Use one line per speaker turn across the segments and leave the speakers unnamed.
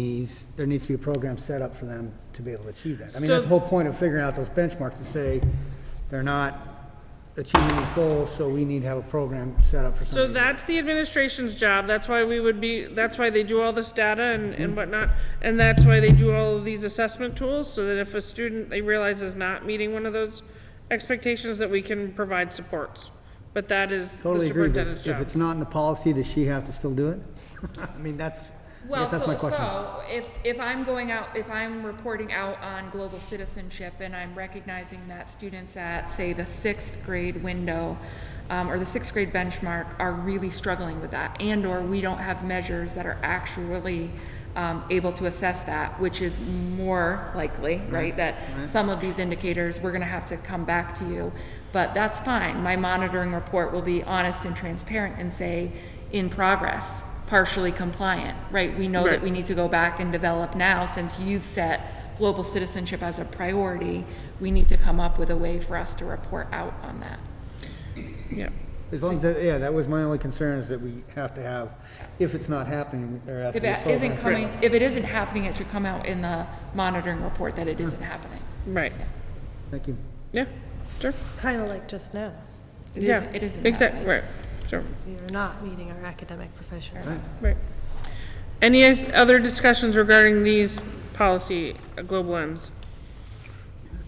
these, there needs to be a program set up for them to be able to achieve that. I mean,
So-
that's the whole point of figuring out those benchmarks, to say, they're not achieving these goals, so we need to have a program set up for
So
somebody.
that's the administration's job, that's why we would be, that's why they do all this data and, and whatnot, and that's why they do all of these assessment tools, so that if a student they realize is not meeting one of those expectations, that we can provide supports. But that is the
Totally agree, but
superintendent's
if
job.
it's not in the policy, does she have to still do it? I mean, that's, I
Well,
guess that's my
so,
question.
so, if, if I'm going out, if I'm reporting out on global citizenship and I'm recognizing that students at, say, the sixth grade window, um, or the sixth grade benchmark are really struggling with that, and/or we don't have measures that are actually, um, able to assess that, which is more likely, right? That some of these indicators, we're gonna have to come back to you, but that's fine. My monitoring report will be honest and transparent and say, in progress, partially compliant, right? We know
Right.
that we need to go back and develop now, since you've set global citizenship as a priority, we need to come up with a way for us to report out on that.
Yeah.
As long as, that- yeah, that was my only concern, is that we have to have, if it's not happening, there has to
If
be a
it
program.
isn't coming, if it isn't happening, it should come out in the monitoring report that it isn't happening.
Right,
Thank you.
yeah, sure,
Kind of like just now.
It
yeah.
isn't, it isn't
Exactly,
happening.
right, sure,
We are not meeting our academic professionals.
right. Any other discussions regarding these policy, uh, global ends?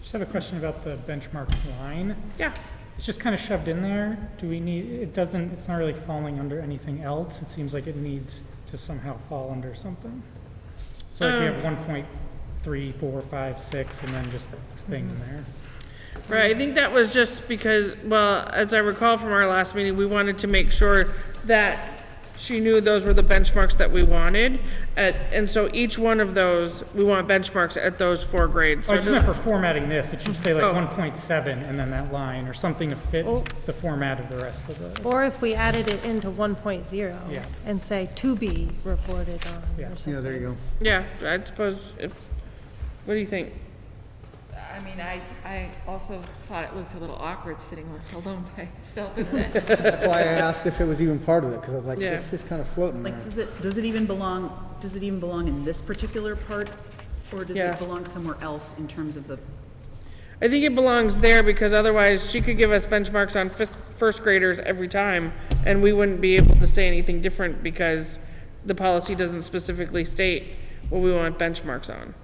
Just have a question about the benchmark line.
Yeah,
It's just kind of shoved in there. Do we need, it doesn't, it's not really falling under anything else. It seems like it needs to somehow fall under something. So like we have
Um.
one point three, four, five, six, and then just this thing in there.
Mm-hmm. Right, I think that was just because, well, as I recall from our last meeting, we wanted to make sure that she knew those were the benchmarks that we wanted. At, and so each one of those, we want benchmarks at those four grades.
Oh,
So
it's not for formatting this. It should say
Oh.
like one point seven and then that line or something to fit
Oh.
the format of the rest of the.
Or if we added it into 1.0.
Yeah.
And say, to be reported on,
Yeah.
or
Yeah,
something.
there you go.
Yeah, I suppose, if, what do you think?
I mean, I, I also thought it looked a little awkward sitting alone by itself in that.
That's why I asked if it was even part of it, because I'm like,
Yeah.
this is kind of floating there.
Like, does it, does it even belong, does it even belong in this particular part? Or does
Yeah.
it belong somewhere else in terms of the,
I think it belongs there because otherwise she could give us benchmarks on fis- first graders every time and we wouldn't be able to say anything different because the policy doesn't specifically state what we want benchmarks on.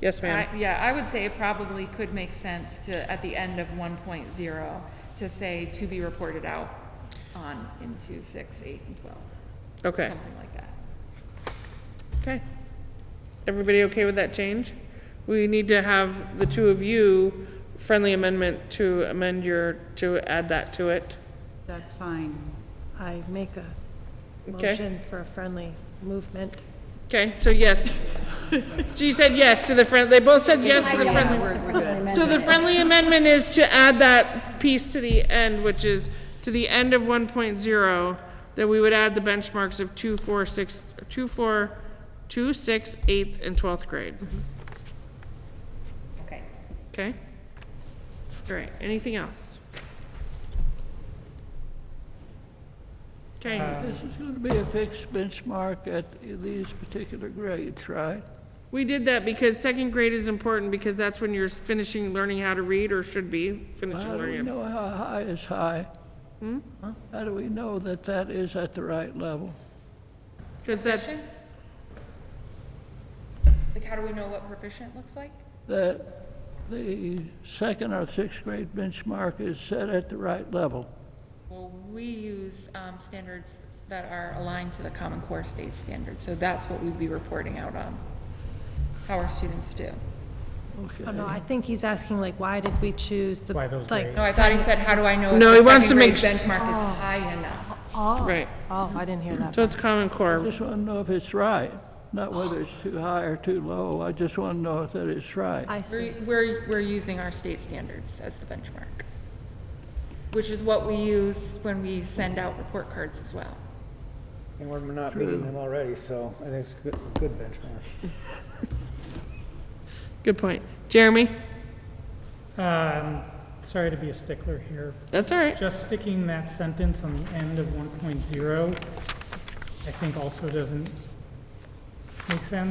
Yes, ma'am?
I- Yeah, I would say it probably could make sense to, at the end of one point zero, to say to be reported out on into six, eight, and twelve.
Okay,
Something like that.
okay. Everybody okay with that change? We need to have the two of you friendly amendment to amend your, to add that to it.
that's fine.
I make a
Okay.
motion for a friendly movement.
Okay, so yes. So you said yes to the friend, they both said yes to the friendly.
We're, we're good.
So the friendly amendment is to add that piece to the end, which is to the end of one point zero, that we would add the benchmarks of two, four, six, two, four, two, six, eighth, and twelfth grade.
Okay.
Okay? All right, anything else? Okay,
This is going to be a fixed benchmark at these particular grades, right?
we did that because second grade is important because that's when you're finishing learning how to read or should be finishing
How do we
learning.
know how high is high? How do we know that that is at the right level?
Because that,
Like, how do we know what proficient looks like?
That the second or sixth grade benchmark is set at the right level?
Well, we use, um, standards that are aligned to the Common Core state standards, so that's what we'd be reporting out on, how our students do.
Okay.
Oh, no, I think he's asking, like, why did we choose the,
Why those
like,
No, I thought he said, how do I know
No,
if
he
the
wants to
second grade
make
benchmark is high enough?
oh,
Right.
oh, I didn't hear that.
so it's Common Core.
Just want to know if it's right, not whether it's too high or too low. I just want to know that it's right.
I
We're,
see.
we're, we're using our state standards as the benchmark, which is what we use when we send out report cards as well.
And we're not meeting them already, so I think it's a good- good benchmark.
Good point. Jeremy?
Um, sorry to be a stickler here,
That's all right.
Just sticking that sentence on the end of 1.0, I think also doesn't Make sense?